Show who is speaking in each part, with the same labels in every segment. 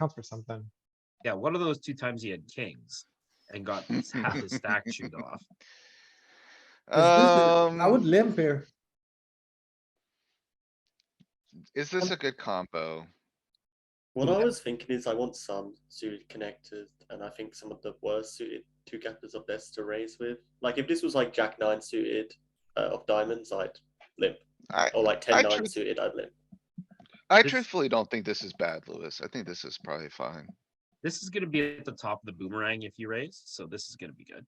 Speaker 1: counts for something.
Speaker 2: Yeah, one of those two times he had kings and got half his stack chewed off.
Speaker 1: I would
Speaker 3: Um,
Speaker 1: limp here.
Speaker 3: is this
Speaker 4: um
Speaker 3: a good combo?
Speaker 4: What I was thinking is I want some suited connectors, and I think some of the worst suited two gappers are best to raise with. Like if this was like Jack nine suited uh, of diamonds, I'd limp,
Speaker 3: I,
Speaker 4: or like
Speaker 3: I
Speaker 4: ten nine
Speaker 3: truth-
Speaker 4: suited, I'd limp.
Speaker 3: I
Speaker 2: This-
Speaker 3: truthfully don't think this is bad, Louis. I think this is probably fine.
Speaker 2: This is gonna be at the top of the boomerang if you raise, so this is gonna be good.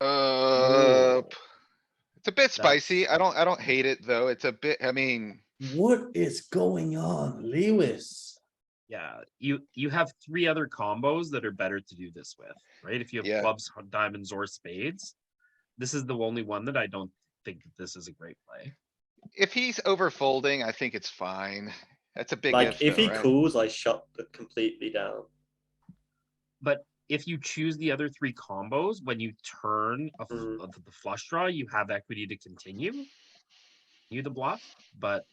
Speaker 3: Uh, p- it's a bit
Speaker 2: That's-
Speaker 3: spicy. I don't, I don't hate it, though. It's a bit, I mean,
Speaker 5: What is going on, Lewis?
Speaker 2: Yeah, you, you have three other combos that are better to do this with, right? If you
Speaker 3: Yeah.
Speaker 2: have clubs, h- diamonds or spades. This is the only one that I don't think that this is a great play.
Speaker 3: if he's over folding, I think it's fine. That's a big
Speaker 4: Like if
Speaker 3: if
Speaker 4: he
Speaker 3: though, right?
Speaker 4: calls, I shut the- completely down.
Speaker 2: If you choose the other three combos, when you turn a f-
Speaker 4: Mhm.
Speaker 2: uh,
Speaker 5: Mm.
Speaker 2: the flush draw, you have equity to continue. You the bluff, but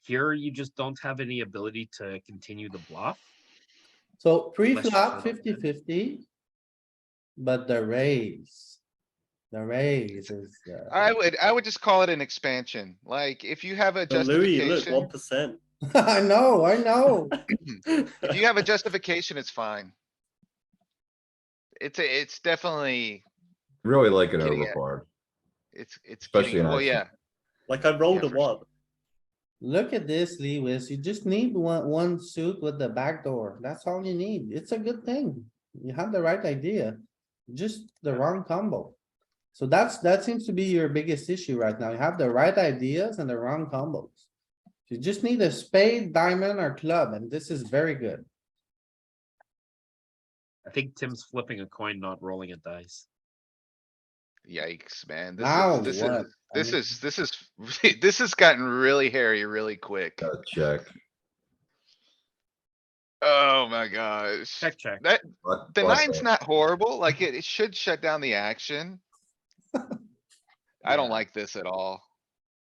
Speaker 2: here you just don't have any ability to continue the bluff.
Speaker 5: So
Speaker 2: Unless you
Speaker 5: pre-flop
Speaker 2: shut up,
Speaker 5: 50
Speaker 2: man.
Speaker 5: 50, But the raise. The raise is, uh,
Speaker 3: I would, I would just call it an expansion. Like, if you have a
Speaker 4: But Louis, look,
Speaker 3: justification,
Speaker 4: one percent.
Speaker 5: I know, I know.
Speaker 3: if you have a justification, it's fine. It's a, it's definitely,
Speaker 6: Really like an
Speaker 3: Getting it.
Speaker 6: overboard.
Speaker 3: it's, it's
Speaker 6: Especially
Speaker 3: getting,
Speaker 6: in
Speaker 3: well,
Speaker 6: action.
Speaker 3: yeah.
Speaker 4: Like I rolled
Speaker 3: Yeah,
Speaker 4: a
Speaker 3: for
Speaker 4: one.
Speaker 5: Look at this, Lewis. You just need one, one suit with the back door. That's all you need. It's a good thing. You have the right idea, just the wrong combo. So that's, that seems to be your biggest issue right now. You have the right ideas and the wrong combos. You just need a spade, diamond, or club, and this is very good.
Speaker 2: I think Tim's flipping a coin, not rolling a dice.
Speaker 3: Yikes, man.
Speaker 5: Now
Speaker 3: This is,
Speaker 5: what? I
Speaker 3: this
Speaker 5: mean-
Speaker 3: is, this is, this is, this has gotten really hairy really quick.
Speaker 6: Gotta check.
Speaker 3: Oh my gosh.
Speaker 2: Check, check.
Speaker 3: That,
Speaker 6: But-
Speaker 3: the
Speaker 6: but,
Speaker 3: nine's
Speaker 6: uh,
Speaker 3: not horrible. Like it, it should shut down the action. I don't
Speaker 2: Yeah.
Speaker 3: like this at all.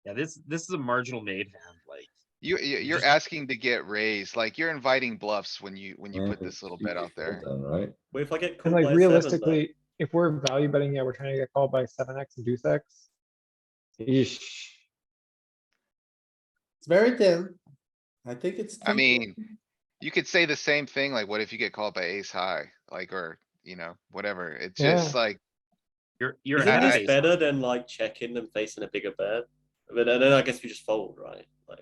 Speaker 2: Yeah, this, this is a marginal made hand, like,
Speaker 3: You, you, you're
Speaker 2: Just-
Speaker 3: asking to get raised, like you're inviting bluffs when you, when you put
Speaker 6: mm,
Speaker 3: this little
Speaker 6: you
Speaker 3: bet
Speaker 6: could
Speaker 3: out there.
Speaker 6: fold Then, right?
Speaker 4: Well, if I get called
Speaker 1: And
Speaker 4: by
Speaker 1: like
Speaker 4: a seven,
Speaker 1: realistically, if we're value betting, yeah, we're trying to get called by seven X and deuce X. Eesh.
Speaker 5: It's very thin. I think it's.
Speaker 3: I
Speaker 5: thin.
Speaker 3: mean, you could say the same thing, like what if you get called by ace high, like, or, you know, whatever. It's
Speaker 1: Yeah.
Speaker 3: just like,
Speaker 2: you're,
Speaker 4: though,
Speaker 2: you're.
Speaker 4: isn't
Speaker 2: ahead of
Speaker 4: this
Speaker 2: pace.
Speaker 4: better than like checking and facing a bigger bet? But then then I guess we just fold, right? Like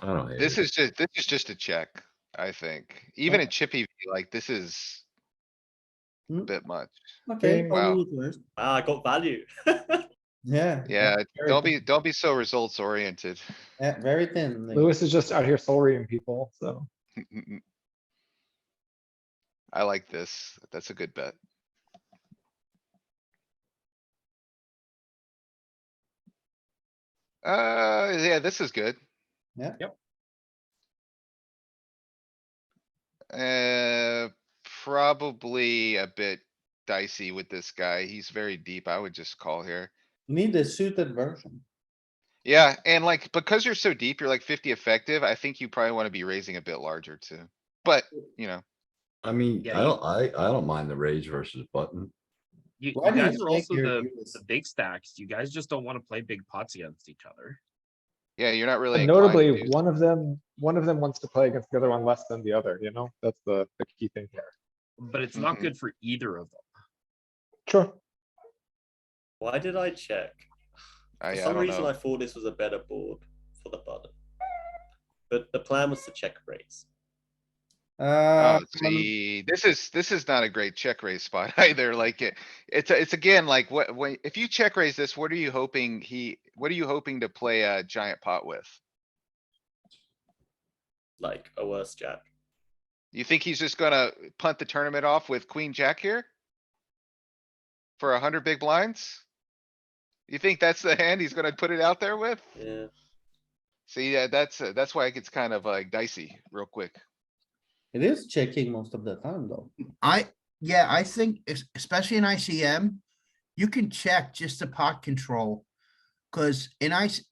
Speaker 6: I don't hate
Speaker 3: This
Speaker 6: it.
Speaker 3: is just, this is just a check, I think. Even a chippy, like this is. a
Speaker 5: Hmm.
Speaker 3: Bit much.
Speaker 5: Okay.
Speaker 3: Wow.
Speaker 5: I'll do it first.
Speaker 4: ah, I got value.
Speaker 5: Yeah.
Speaker 3: Yeah,
Speaker 5: very
Speaker 3: don't
Speaker 5: thin.
Speaker 3: be, don't be so results oriented.
Speaker 5: Yeah, very thin. like-
Speaker 1: Lewis is just out here soul reading people, so.
Speaker 3: I like this. That's a good bet. Uh, yeah, this is good.
Speaker 5: Yeah.
Speaker 2: Yep.
Speaker 3: Uh, probably a bit dicey with this guy. He's very deep. I would just call here.
Speaker 5: You Need the suited version.
Speaker 3: Yeah, and like, because you're so deep, you're like fifty effective, I think you probably wanna be raising a bit larger too. But, you know,
Speaker 6: I mean,
Speaker 2: Yeah,
Speaker 6: I
Speaker 2: you-
Speaker 6: don't, I, I don't mind the raise versus button.
Speaker 2: You, you
Speaker 5: Why do you
Speaker 2: guys are
Speaker 5: think
Speaker 2: also
Speaker 5: you're
Speaker 2: the,
Speaker 5: Lewis?
Speaker 2: the big stacks. You guys just don't wanna play big pots against each other.
Speaker 3: yeah, you're not really.
Speaker 1: And
Speaker 3: inclined to
Speaker 1: notably,
Speaker 3: do-
Speaker 1: one of them, one of them wants to play against the other one less than the other, you know? That's the, the key thing here.
Speaker 2: But it's not
Speaker 5: Mm-hmm.
Speaker 3: Mhm.
Speaker 2: good for either of them.
Speaker 1: Sure.
Speaker 4: Why did I check?
Speaker 3: I-
Speaker 4: For
Speaker 3: Uh, I
Speaker 4: some
Speaker 3: don't
Speaker 4: reason,
Speaker 3: know.
Speaker 4: I thought this was a better board for the button. But the plan was to check raise.
Speaker 5: Uh,
Speaker 3: Oh, see, this is, this is not a great check raise spot either, like, it, it's, a- it's again, like, what, when, if you check raise this, what are you hoping he, what are you hoping to play a giant pot with?
Speaker 4: Like a worse jack.
Speaker 3: You think he's just gonna punt the tournament off with queen jack here? For a hundred big blinds? You think that's the hand he's gonna put it out there with?
Speaker 4: Yeah.
Speaker 3: See, yeah, that's, uh, that's why it gets kind of like dicey real quick.
Speaker 5: it is checking most of the time though.
Speaker 7: I, yeah, I think es- especially in ICM, you can check just the pot control. Cause in ice,